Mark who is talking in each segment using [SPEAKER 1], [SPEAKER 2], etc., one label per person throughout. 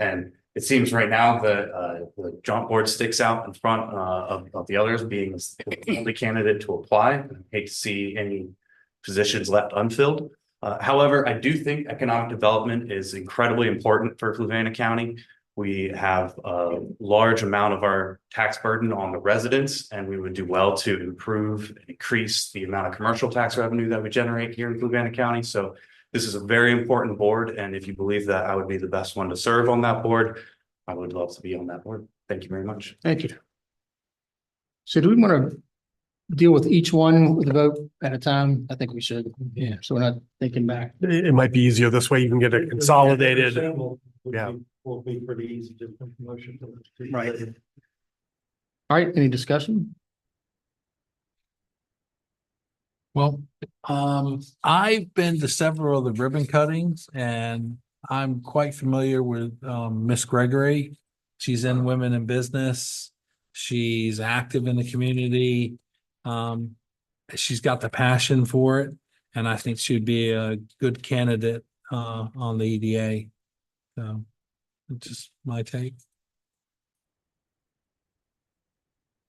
[SPEAKER 1] And it seems right now the, uh, the jump board sticks out in front, uh, of, of the others being the only candidate to apply. Hate to see any positions left unfilled. Uh, however, I do think economic development is incredibly important for Fluvanna County. We have a large amount of our tax burden on the residents and we would do well to improve, and increase the amount of commercial tax revenue that we generate here in Fluvanna County. So this is a very important board, and if you believe that I would be the best one to serve on that board, I would love to be on that board. Thank you very much.
[SPEAKER 2] Thank you. So do we want to deal with each one with a vote at a time? I think we should.
[SPEAKER 3] Yeah.
[SPEAKER 2] So we're not thinking back.
[SPEAKER 3] It, it might be easier this way. You can get it consolidated. Yeah.
[SPEAKER 4] Will be pretty easy, just make a motion. to-
[SPEAKER 2] Right. All right, any discussion?
[SPEAKER 3] Well, um, I've been to several of the ribbon cuttings and I'm quite familiar with, um, Miss Gregory. She's in Women in Business. She's active in the community. Um, she's got the passion for it and I think she'd be a good candidate, uh, on the EDA. So, that's just my take.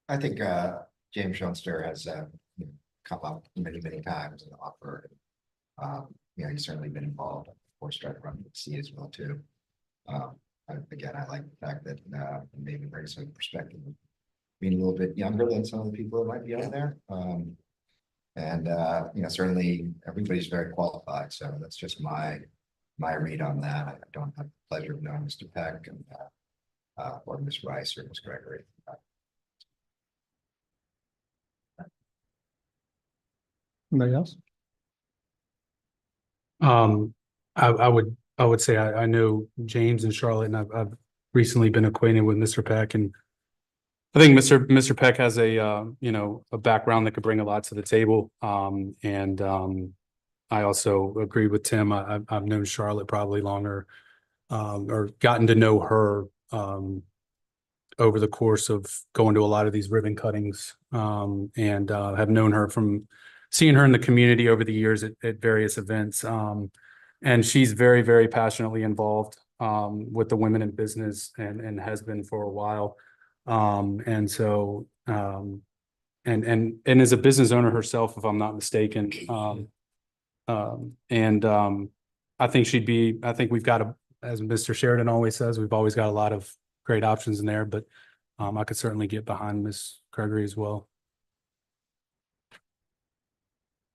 [SPEAKER 5] I think uh James Schoenster has uh you know, come up many, many times and offered. Um, you know, he's certainly been involved, of course, trying to run the C as well too. Um, I again, I like the fact that uh maybe brings some perspective. Being a little bit younger than some of the people that might be on there, um. And uh, you know, certainly everybody's very qualified, so that's just my, my read on that. I don't have the pleasure of knowing Mr. Peck and. uh, Uh, or Ms. Rice or Ms. Gregory, Uh,
[SPEAKER 2] Anybody else?
[SPEAKER 6] Um, I, I would, I would say I, I know James and Charlotte and I've, I've recently been acquainted with Mr. Peck and I think Mr. Mr. Peck has a, uh, you know, a background that could bring a lot to the table. Um, and, um, I also agree with Tim. I, I've, I've known Charlotte probably longer, um, or gotten to know her, um, over the course of going to a lot of these ribbon cuttings, um, and, uh, have known her from seeing her in the community over the years at, at various events. Um, and she's very, very passionately involved um, with the women in business and, and has been for a while. Um, and so, um, and, and, and is a business owner herself, if I'm not mistaken. Um, um, and, um, I think she'd be, I think we've got a, as Mr. Sheridan always says, we've always got a lot of great options in there, but, um, I could certainly get behind Ms. Gregory as well.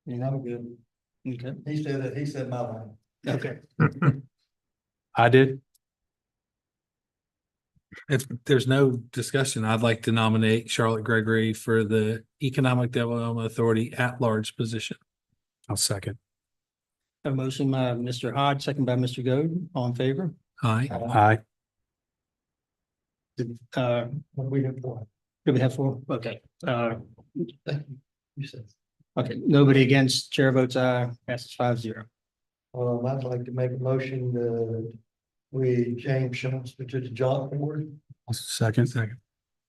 [SPEAKER 2] Yeah, I'm good. Okay.
[SPEAKER 4] He said it, he said my line.
[SPEAKER 2] Okay.
[SPEAKER 6] I did.
[SPEAKER 3] If there's no discussion, I'd like to nominate Charlotte Gregory for the Economic Development Authority at-large position.
[SPEAKER 6] I'll second.
[SPEAKER 2] A motion by Mr. Hodge, second by Mr. Goode, all in favor?
[SPEAKER 3] Aye.
[SPEAKER 6] Aye.
[SPEAKER 2] Did, uh,
[SPEAKER 4] What we have for.
[SPEAKER 2] did we have four? Okay, uh,
[SPEAKER 4] You said,
[SPEAKER 2] okay, nobody against, chair votes aye, passes five zero.
[SPEAKER 4] um, I'd like to make a motion that we, James Schoenster to the job board. uh,
[SPEAKER 6] Second. Second.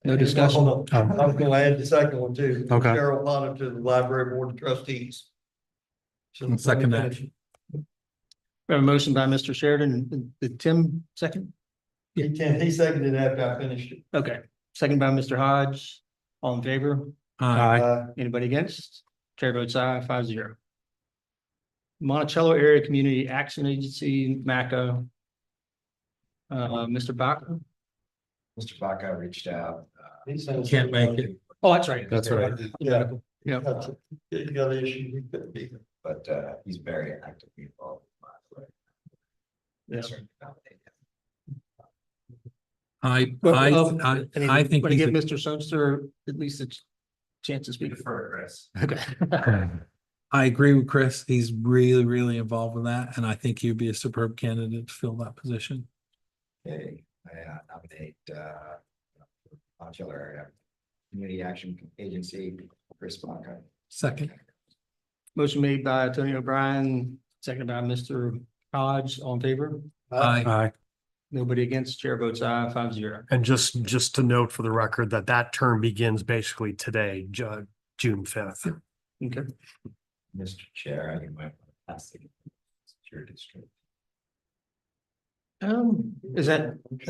[SPEAKER 2] No discussion.
[SPEAKER 4] Hold
[SPEAKER 3] Um,
[SPEAKER 4] on. I was gonna add the second one too.
[SPEAKER 6] Okay.
[SPEAKER 4] Cheryl Potter to the library board of trustees. So
[SPEAKER 3] I'll second that.
[SPEAKER 2] We have a motion by Mr. Sheridan, did Tim second?
[SPEAKER 4] He can, he seconded after I finished it.
[SPEAKER 2] Okay, second by Mr. Hodge, all in favor?
[SPEAKER 3] Aye.
[SPEAKER 6] Aye.
[SPEAKER 4] Uh,
[SPEAKER 2] Anybody against? Chair votes aye, five zero. Monticello Area Community Action Agency, MACA. Uh, Mr. Baca?
[SPEAKER 5] Mr. Baca reached out. uh,
[SPEAKER 4] he said-
[SPEAKER 3] Can't make it.
[SPEAKER 2] Oh, that's right.
[SPEAKER 6] That's right.
[SPEAKER 4] Yeah.
[SPEAKER 2] Yeah.
[SPEAKER 4] That's- You got an issue, you could be.
[SPEAKER 5] But uh, he's very actively involved. with my-
[SPEAKER 2] Yeah.
[SPEAKER 5] Certainly nominated.
[SPEAKER 3] I,
[SPEAKER 2] Well,
[SPEAKER 3] I,
[SPEAKER 2] um,
[SPEAKER 3] I,
[SPEAKER 2] And
[SPEAKER 3] I think
[SPEAKER 2] Want to
[SPEAKER 3] he's
[SPEAKER 2] give
[SPEAKER 3] a-
[SPEAKER 2] Mr. Sumster at least a ch- chance to speak? Okay.
[SPEAKER 3] I agree with Chris. He's really, really involved with that, and I think he'd be a superb candidate to fill that position.
[SPEAKER 5] Okay, I uh, nominate uh. Montclair Area Community Action Agency, Chris Baca.
[SPEAKER 3] Second.
[SPEAKER 2] Motion made by Tony O'Brien, seconded by Mr. Hodge, all in favor?
[SPEAKER 3] Aye.
[SPEAKER 6] Aye.
[SPEAKER 2] Nobody against? Chair votes aye, five zero.
[SPEAKER 7] And just, just to note for the record that that term begins basically today, Ju- June fifth.
[SPEAKER 2] Okay.
[SPEAKER 5] Mr. Chair, I think my. pass it to Your district.
[SPEAKER 2] Um, is that